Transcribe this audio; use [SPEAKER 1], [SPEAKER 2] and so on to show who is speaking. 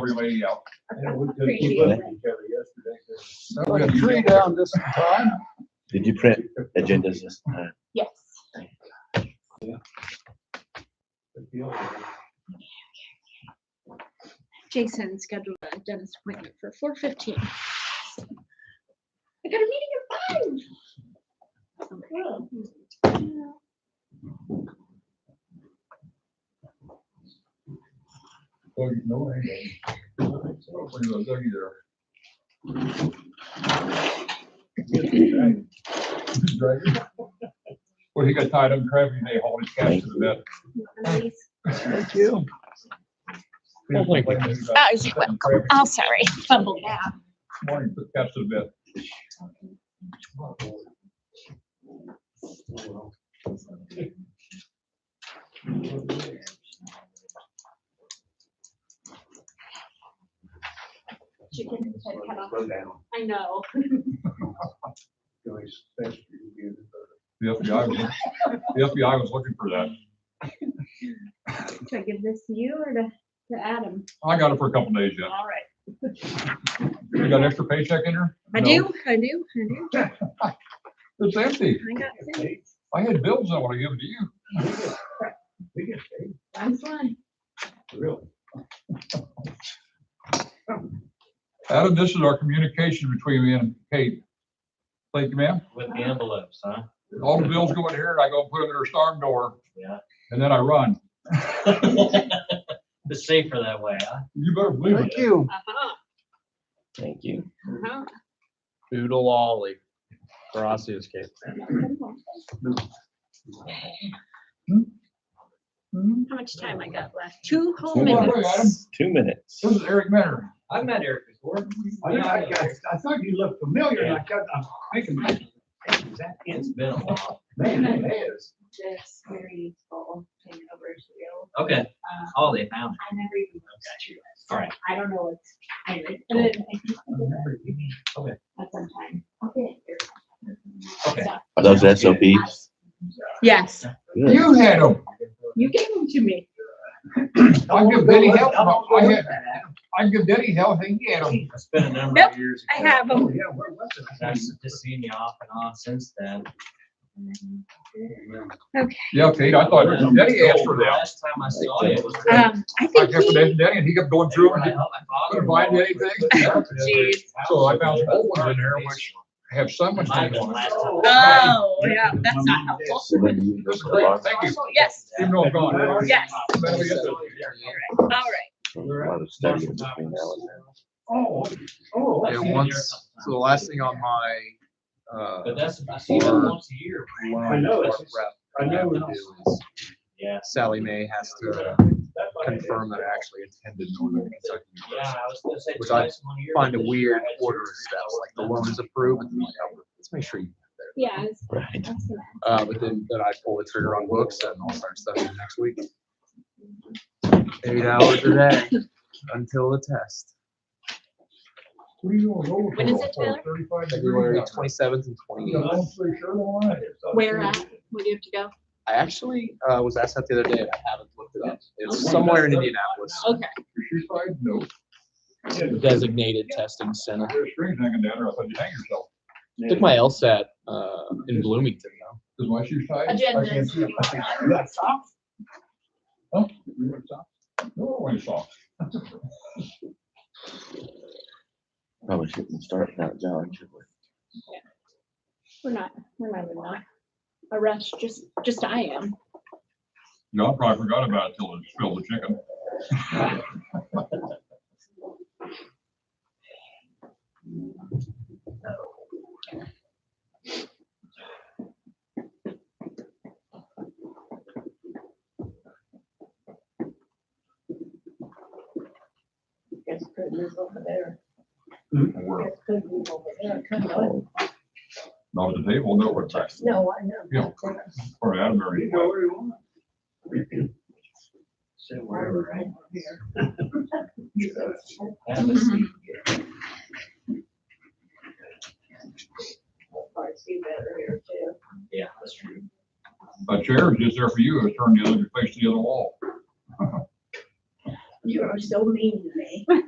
[SPEAKER 1] everybody else.
[SPEAKER 2] Appreciate it.
[SPEAKER 1] We got three down this time.
[SPEAKER 3] Did you print agendas this time?
[SPEAKER 2] Yes. Jason scheduled a dentist appointment for four fifteen. I got a meeting at five.
[SPEAKER 1] Oh, you know, hey. Nobody was there either. Driver? Well, he got tied up in traffic and they hauled his cash to the vet. Thank you.
[SPEAKER 4] Oh, you're welcome. Oh, sorry. Fumbled that.
[SPEAKER 1] Morning, took cash to the vet.
[SPEAKER 2] Chicken head cut off. I know.
[SPEAKER 1] The FBI, was- the FBI was looking for that.
[SPEAKER 2] Should I give this to you or to, to Adam?
[SPEAKER 1] I got it for a couple days yet.
[SPEAKER 2] All right.
[SPEAKER 1] You got an extra paycheck in there?
[SPEAKER 2] I
[SPEAKER 1] No.
[SPEAKER 2] do, I do, I do.
[SPEAKER 1] It's empty.
[SPEAKER 2] I got six.
[SPEAKER 1] I had bills I want to give to you.
[SPEAKER 2] I'm fine.
[SPEAKER 1] Adam, this is our communication between me and Kate. Thank you, ma'am.
[SPEAKER 5] With the envelopes, huh?
[SPEAKER 1] All the bills go in here and I go and put them in her storm door
[SPEAKER 5] Yeah.
[SPEAKER 1] and then I run.
[SPEAKER 5] It's safer that way, huh?
[SPEAKER 1] You better believe it.
[SPEAKER 6] you.
[SPEAKER 2] Uh-huh,
[SPEAKER 3] Thank you.
[SPEAKER 2] uh-huh.
[SPEAKER 6] Doodle ollie for Osseous case.
[SPEAKER 1] Mhm.
[SPEAKER 2] How much time I got left? Two whole
[SPEAKER 3] Two
[SPEAKER 1] minutes.
[SPEAKER 3] minutes. Two minutes.
[SPEAKER 1] This is Eric Mentor.
[SPEAKER 5] I've met Eric before.
[SPEAKER 6] Oh, I thought you looked familiar.
[SPEAKER 5] and I
[SPEAKER 6] I'm thinking,
[SPEAKER 5] It's been a while.
[SPEAKER 6] man, it is.
[SPEAKER 2] This very full thing over to you.
[SPEAKER 5] Okay.
[SPEAKER 2] Uh,
[SPEAKER 5] Oh, they found it.
[SPEAKER 2] I never even looked at your list.
[SPEAKER 5] All right.
[SPEAKER 2] I don't know what's. I did, but I think I did
[SPEAKER 5] Okay.
[SPEAKER 2] At some time. Okay.
[SPEAKER 5] Okay.
[SPEAKER 3] Are those SOPs?
[SPEAKER 2] Yes,
[SPEAKER 3] Good.
[SPEAKER 1] You had them.
[SPEAKER 2] you gave them to me.
[SPEAKER 1] I
[SPEAKER 5] Oh,
[SPEAKER 1] give Betty help. I had, I give Betty help. Hey, you had them.
[SPEAKER 5] It's been a number
[SPEAKER 2] Nope,
[SPEAKER 5] of years. ago.
[SPEAKER 2] them.
[SPEAKER 5] And I've just seen you off and on since then.
[SPEAKER 1] Yeah, Kate, I thought Betty asked for that.
[SPEAKER 5] Last time I saw you was.
[SPEAKER 2] Um, I
[SPEAKER 1] I
[SPEAKER 2] think
[SPEAKER 1] kept
[SPEAKER 2] he,
[SPEAKER 1] it Betty and he kept going
[SPEAKER 5] They
[SPEAKER 1] through
[SPEAKER 5] were
[SPEAKER 1] and
[SPEAKER 5] like,
[SPEAKER 1] didn't
[SPEAKER 5] "Oh, my father-in-law
[SPEAKER 1] find
[SPEAKER 5] was
[SPEAKER 1] anything.
[SPEAKER 5] with us."
[SPEAKER 2] Jeez.
[SPEAKER 1] So I found old ones in there, which have so much.
[SPEAKER 5] Mine was
[SPEAKER 1] on it.
[SPEAKER 5] last time.
[SPEAKER 2] oh, yeah, that's not helpful.
[SPEAKER 1] This is great. Thank you.
[SPEAKER 2] Yes,
[SPEAKER 1] Even
[SPEAKER 6] Oh,
[SPEAKER 1] though I'm gone.
[SPEAKER 2] Yes.
[SPEAKER 1] Better get this.
[SPEAKER 2] all right.
[SPEAKER 3] A lot of studying between now and then.
[SPEAKER 6] Oh, oh.
[SPEAKER 5] I've
[SPEAKER 7] Yeah,
[SPEAKER 5] seen you
[SPEAKER 7] once-
[SPEAKER 5] there a couple
[SPEAKER 7] So the last thing on my, uh,
[SPEAKER 5] But that's, I see them
[SPEAKER 7] Or-
[SPEAKER 5] once a year.
[SPEAKER 6] I know, it's just-
[SPEAKER 7] rep
[SPEAKER 6] I
[SPEAKER 7] we have
[SPEAKER 6] know.
[SPEAKER 7] to
[SPEAKER 6] it's-
[SPEAKER 7] do is
[SPEAKER 5] Yeah.
[SPEAKER 7] Sally Mae has to
[SPEAKER 6] that's what I did.
[SPEAKER 7] confirm that I actually attended Northern Kentucky
[SPEAKER 5] Yeah,
[SPEAKER 7] University.
[SPEAKER 5] I was gonna say.
[SPEAKER 7] Which I
[SPEAKER 5] twice in one year,
[SPEAKER 7] Find a
[SPEAKER 5] but this
[SPEAKER 7] weird
[SPEAKER 5] year I had
[SPEAKER 7] order of
[SPEAKER 5] surgery,
[SPEAKER 7] steps,
[SPEAKER 5] so
[SPEAKER 7] like the loan is approved, and then like, oh, let's make sure you.
[SPEAKER 2] Yeah, I was,
[SPEAKER 3] Right.
[SPEAKER 2] I was gonna
[SPEAKER 7] Uh, but then, then I pull the trigger on books and I'll start studying next week. Eight hours a day until the test,
[SPEAKER 1] What are you on roll
[SPEAKER 2] When is it,
[SPEAKER 1] call
[SPEAKER 2] Taylor?
[SPEAKER 1] for? Thirty-five
[SPEAKER 7] February
[SPEAKER 1] degrees.
[SPEAKER 7] twenty-seventh and twenty-eighth.
[SPEAKER 1] I'm pretty sure all right.
[SPEAKER 2] Where at? Where do you have to go?
[SPEAKER 7] I actually, uh, was asked that the other day, and I haven't looked it up. It's somewhere in Indianapolis.
[SPEAKER 2] Okay.
[SPEAKER 1] Your shoe size? No.
[SPEAKER 7] Designated testing center.
[SPEAKER 1] There's strings hanging down there. I thought you hang yourself.
[SPEAKER 7] Took my LSAT, uh, in Bloomington though.
[SPEAKER 1] Is my shoe size? I can't see it. I can't-
[SPEAKER 2] Agendas.
[SPEAKER 6] You got socks?
[SPEAKER 1] Huh? You want socks? No, I don't want socks.
[SPEAKER 3] Probably shouldn't start without John, should we?
[SPEAKER 2] We're not, we're not in a rush, just, just I am.
[SPEAKER 1] No, I probably forgot about it till it spilled the chicken.
[SPEAKER 8] Guess could move over there.
[SPEAKER 1] We're
[SPEAKER 8] Guess could move over there. Couldn't do it.
[SPEAKER 3] Oh,
[SPEAKER 1] Not at the table, no, we're texting.
[SPEAKER 8] No, I know.
[SPEAKER 1] Yeah. Or Adam or.
[SPEAKER 6] You go where you want.
[SPEAKER 5] Sit
[SPEAKER 8] Right
[SPEAKER 5] wherever.
[SPEAKER 8] right here.
[SPEAKER 5] Have a seat.
[SPEAKER 8] I see better here too.
[SPEAKER 5] Yeah, that's true.
[SPEAKER 1] A chair is just there for you. It's turned the other, face to the other wall.
[SPEAKER 8] You are so mean to me.